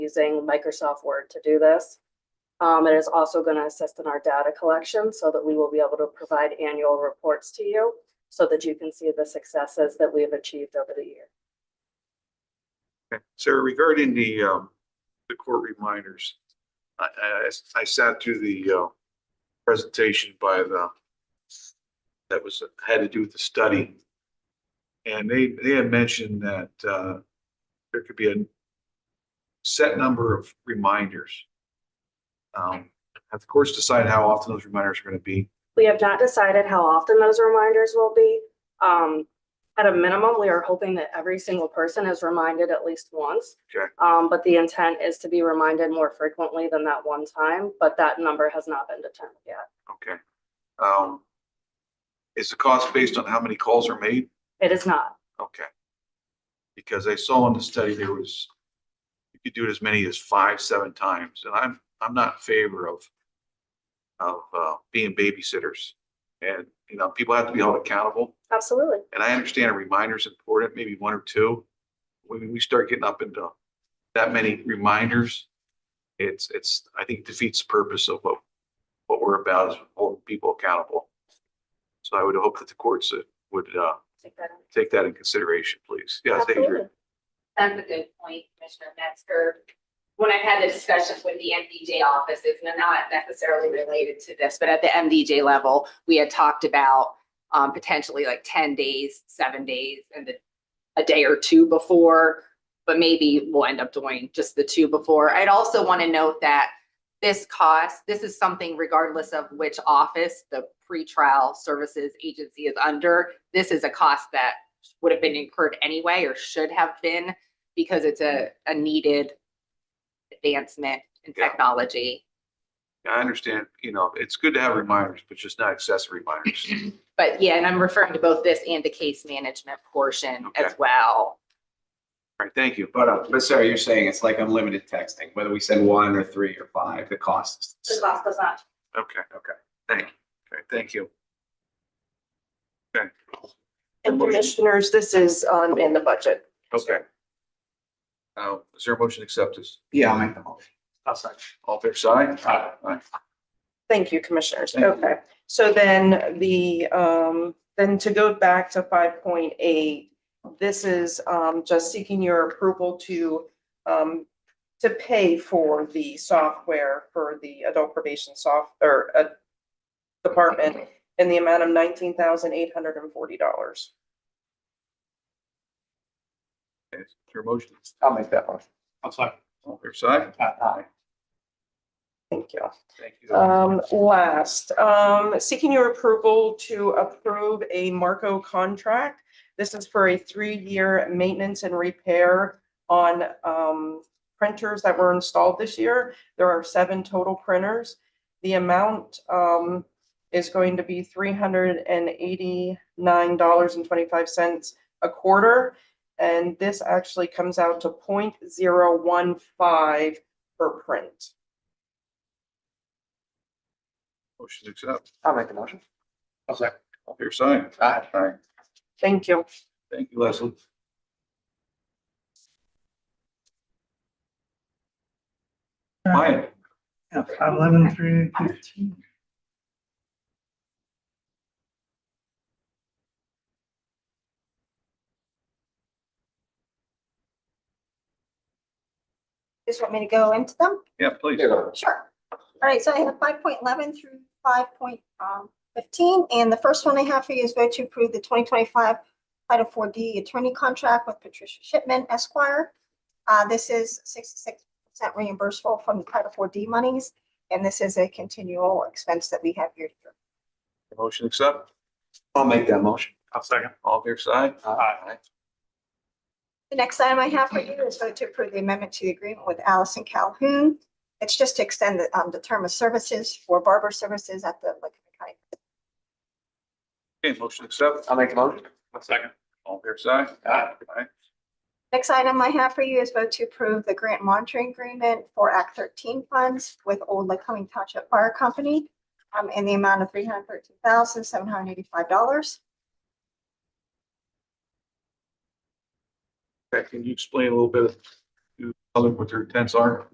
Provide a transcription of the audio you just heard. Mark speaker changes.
Speaker 1: using Microsoft Word to do this. Um, it is also going to assist in our data collection so that we will be able to provide annual reports to you so that you can see the successes that we have achieved over the year.
Speaker 2: Okay. Sarah, regarding the, um, the court reminders, I, I, I sat through the, uh, presentation by the, that was, had to do with the study. And they, they had mentioned that, uh, there could be a set number of reminders. Um, have the courts decide how often those reminders are gonna be.
Speaker 1: We have not decided how often those reminders will be. Um, at a minimum, we are hoping that every single person is reminded at least once.
Speaker 2: Okay.
Speaker 1: Um, but the intent is to be reminded more frequently than that one time, but that number has not been determined yet.
Speaker 2: Okay. Um, is the cost based on how many calls are made?
Speaker 1: It is not.
Speaker 2: Okay. Because I saw in the study there was, you could do it as many as five, seven times, and I'm, I'm not in favor of, of, uh, being babysitters. And, you know, people have to be held accountable,
Speaker 1: Absolutely.
Speaker 2: and I understand a reminder's important, maybe one or two. When we start getting up into that many reminders, it's, it's, I think defeats the purpose of what, what we're about is holding people accountable. So I would hope that the courts would, uh,
Speaker 1: Take that in.
Speaker 2: take that in consideration, please. Yes, Adrian.
Speaker 1: Absolutely.
Speaker 3: That's a good point, Commissioner Metzger. When I've had the discussions with the MDJ office, it's not necessarily related to this, but at the MDJ level, we had talked about um, potentially like ten days, seven days, and the- a day or two before, but maybe we'll end up doing just the two before. I'd also want to note that this cost, this is something regardless of which office the pretrial services agency is under, this is a cost that would have been incurred anyway or should have been because it's a, a needed advancement in
Speaker 2: Yeah.
Speaker 3: technology.
Speaker 2: I understand, you know, it's good to have reminders, but just not excessive reminders.
Speaker 3: But yeah, and I'm referring to both this and the case management portion as
Speaker 2: Okay.
Speaker 3: well.
Speaker 2: All right, thank you.
Speaker 4: But, uh, but Sarah, you're saying it's like unlimited texting, whether we send one or three or five, the cost.
Speaker 1: The
Speaker 4: is-
Speaker 1: cost does not
Speaker 2: Okay. Okay. Thank you. Okay, thank you. Okay.
Speaker 5: And commissioners, this is um in the budget.
Speaker 2: Okay. Uh, is there a motion to accept this?
Speaker 4: Yeah, I'll make the motion.
Speaker 2: All fair side?
Speaker 4: Aye.
Speaker 5: Thank you, commissioners.
Speaker 4: Thank you.
Speaker 5: Okay, so then the um, then to go back to five point eight. This is um just seeking your approval to um to pay for the software for the adult probation soft or uh department in the amount of nineteen thousand eight hundred and forty dollars.
Speaker 2: Okay, Is there a motion?
Speaker 4: I'll make that motion.
Speaker 2: All fair side?
Speaker 4: Aye.
Speaker 5: Thank you.
Speaker 2: Thank you.
Speaker 5: Um, last, um, seeking your approval to approve a Marco contract. This is for a three-year maintenance and repair on, um, printers that were installed this year. There are seven total printers. The amount, um, is going to be three hundred and eighty-nine dollars and twenty-five cents a quarter. And this actually comes out to 0.015 per print.
Speaker 2: Motion to accept.
Speaker 4: I'll make the motion. I'll second.
Speaker 2: All fair side?
Speaker 4: Aye.
Speaker 2: Aye.
Speaker 5: Thank you.
Speaker 2: Thank you, Leslie. Maya,
Speaker 6: Yeah, five eleven through fifteen.
Speaker 7: Just want me to go into them?
Speaker 2: yeah, please.
Speaker 7: Sure. All right, so I have five point eleven through five point um, fifteen, and the first one I have for you is vote to approve the twenty twenty-five Title Four D Attorney Contract with Patricia Shipman Esquire. Uh, this is sixty-six percent reimbursable from the Title Four D monies, and this is a continual expense that we have year to year.
Speaker 2: Motion to accept.
Speaker 4: I'll make that motion.
Speaker 6: I'll second.
Speaker 2: All fair side?
Speaker 6: Aye.
Speaker 7: The next item I have for you is vote to approve the amendment to the agreement with Allison Calhoun. It's just to extend the, um, the term of services for barber services at the Lincoln County
Speaker 2: Okay, motion to accept.
Speaker 4: I'll make the motion.
Speaker 6: I'll second.
Speaker 2: All fair side?
Speaker 4: Aye.
Speaker 2: Aye.
Speaker 7: Next item I have for you is vote to approve the grant monitoring agreement for Act thirteen funds with Old Lake Cumming Township Fire Company um, in the amount of three hundred thirteen thousand, seven hundred eighty-five dollars.
Speaker 2: Okay, can you explain a little bit to public what their intents are.